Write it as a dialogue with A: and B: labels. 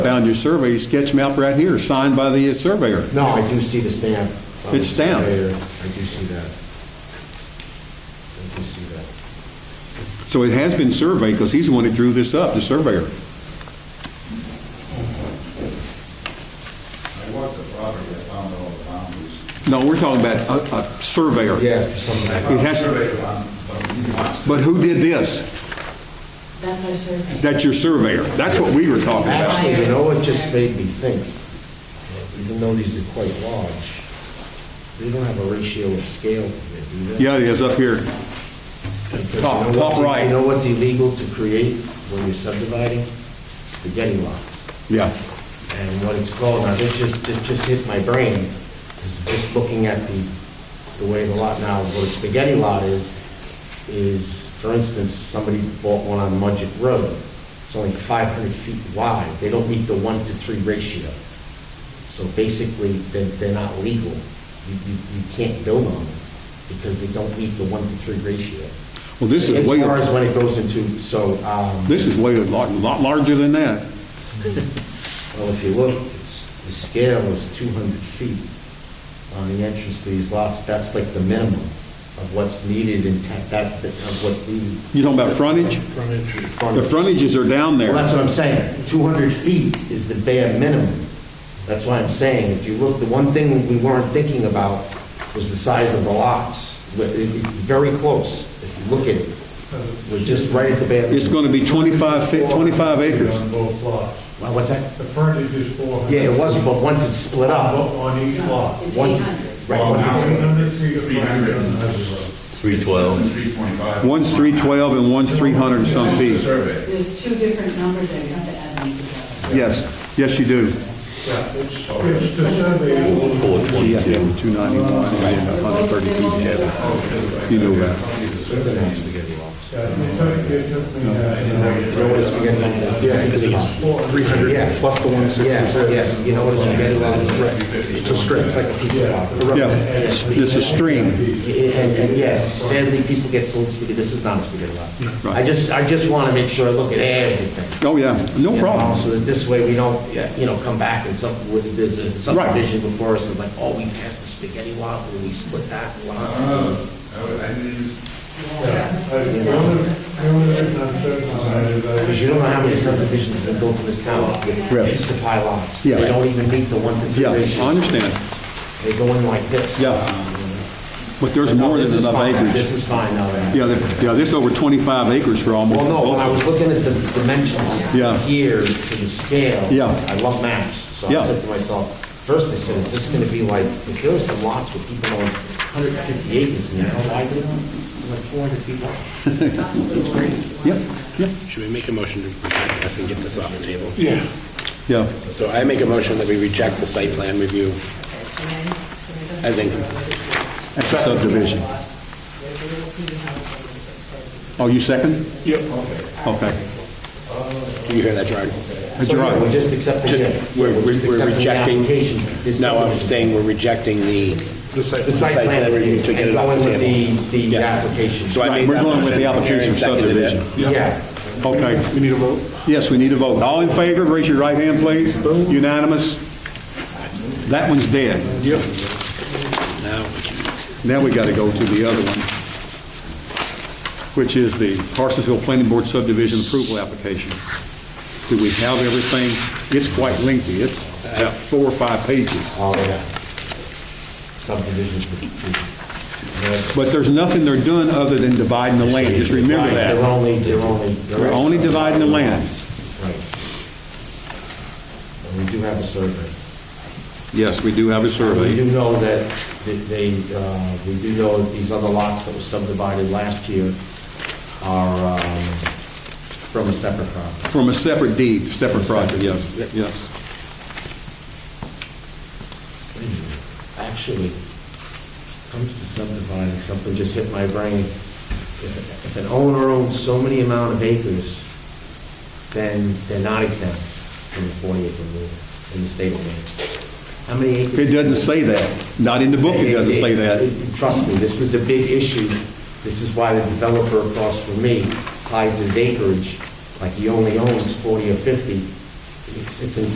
A: on your survey sketch map right here, signed by the surveyor.
B: No, I do see the stamp. of the
A: It's stamped.
B: surveyor. I do see that. I do see that.
A: So it has been surveyed, because he's the one that drew this up, the surveyor.
C: I walked the property, I found all the boundaries.
A: No, we're talking about a, a surveyor.
B: Yeah, something like
A: It
B: that.
A: has-
C: Survey on, but you must.
A: But who did this?
D: That's our survey.
A: That's your surveyor. That's what we were talking about.
B: Actually, you know what just made me think? Uh, Even though these are quite large, they don't have a ratio of scale to it, do they?
A: Yeah, it is up here.
B: Because you
A: Top-
B: know
A: top
B: what's-
A: right.
B: You know what's illegal to create when you're subdividing? Spaghetti lots.
A: Yeah.
B: and what it's called. Now, this just, this just hit my brain, because just looking at the, the way the lot now, what a spaghetti lot is, is, for instance, somebody bought one on Mudgett Road. It's only 500 feet wide. They don't meet the one to three ratio. So basically, they're, they're not legal. You, you, you can't build on them because they don't meet the one to three ratio.
A: Well, this is
B: As
A: way,
B: far as when it goes into, so, um,
A: this is way, a lot, lot larger than that.
B: Well, if you look, it's, the scale is 200 feet on the entrance to these lots. That's like the minimum of what's needed in, ta- that, of what's needed.
A: You talking about frontage? The
B: The
A: frontages are down
B: Well,
A: there.
B: that's what I'm saying. 200 feet is the bare minimum. That's why I'm saying, if you look, the one thing we weren't thinking about was the size of the lots. But it- It's very close, if you look at it. We're just right at the bare.
A: It's going to be 25, fi- 25 acres.
E: On both lots.
B: Well, What's that?
E: The frontage is 400.
B: Yeah, it was, but once it's split up.
E: On each lot.
D: It's
B: Once-
D: 800.
B: Right, once it's split.
E: 300 feet of
C: 300.
E: frontage on the road.
F: 312.
C: Three twenty-five.
A: One's 312 and one's 300 and some
C: The
A: feet.
C: survey.
D: There's two different numbers there, you have to add them together.
A: Yes, yes, you do.
E: Yeah, it's, it's the survey. will-
A: Yeah, 291 and 130 feet. You know that.
E: Yeah, it took, it took me, uh,
B: Yeah, because it's 300. Yeah, plus the 166. Yeah, yeah, you know what a spaghetti lot is? It's a string, it's like a piece of rock.
A: Yeah, it's a stream.
B: And, and yeah, sadly, people get sold spaghetti, this is not a spaghetti lot. I just, I just want to make sure I look at everything.
A: Oh, yeah, no
B: you know,
A: problem.
B: So that this way we don't, you know, come back and some, with- there's a subdivision before us and like, oh, we passed the spaghetti lot, and we split that lot.
C: Oh, I I didn't,
E: yeah, I- The only, the only reason I'm certain on that is I-
B: Because you don't know how many subdivisions have been built in this town
A: Right.
B: with heaps of high lots. They
A: Yeah.
B: don't even meet the one to three
A: Yeah, I
B: ratio.
A: understand.
B: They go in like this. Um,
A: Yeah. But there's
B: No,
A: more
B: this
A: than
B: is
A: enough
B: fine. This
A: acreage.
B: is fine now. then.
A: Yeah, there- yeah, there's over 25 acres for almost.
B: Well, no, when I was looking at the dimensions
A: Yeah.
B: here to the scale.
A: Yeah.
B: I love maps, so
A: Yeah.
B: I said to myself, first I said, is this going to be like, because there are some lots with people on 150 acres, and you know, why did like 400 feet long?
A: Yeah, yeah,
G: Should we make a motion to reject this and get this off the table?
A: yeah.
G: So I make a motion that we reject the site plan review as incomplete.
A: And Subdivision. Oh, you second? Yep. Okay.
G: Do you hear that, Gerard?
A: That's
B: So, yeah, We're
A: right.
B: just accepting
G: Just-
B: it.
G: We're
B: We're just
G: we're- we're
B: accepting the
G: rejecting,
B: application, this
G: no, I'm
B: subdivision.
G: saying we're rejecting the,
B: The site
G: site
B: plan
G: plan
B: review,
G: review to get
B: and
G: it off
B: going
G: the
B: with
G: table.
B: the, the
G: Yeah.
B: application.
G: so I
A: Right,
G: made
A: we're
G: that
A: going with
G: motion.
A: the application
G: Aaron seconded it.
A: subdivision.
B: Yeah.
A: Okay.
F: We need a vote?
A: Yes, we need a vote. All in favor, raise your right hand, please. Unanimous? That one's dead. Yep.
G: Now, we can-
A: Now we got to go to the other one, which is the Parsonsville Planning Board subdivision approval application. Do we have everything? It's quite lengthy. It's about four or five pages.
B: Oh, yeah. Subdivisions. to- to-
A: But there's nothing they're doing other than dividing the land, just remember
B: Right, They're
A: that.
B: only, they're only.
A: We're only dividing the lands.
B: Right. And we do have a survey.
A: Yes, we do have a
B: We
A: survey.
B: do know that that they, uh, we do know that these other lots that were subdivided last year are um, from a separate property.
A: From a separate deed, separate project,
B: Separate.
A: yes, yes.
B: Actually, comes to subdividing, something just hit my brain. If if an owner owns so many amount of acres, then they're not exempt from the 40 acre rule in the state of Maine. How many acres?
A: It doesn't say that, not in the book it doesn't say that.
B: Trust me, this was a big issue. This is why the developer across from me hides his acreage, like he only owns 40 or 50. It's it's insane.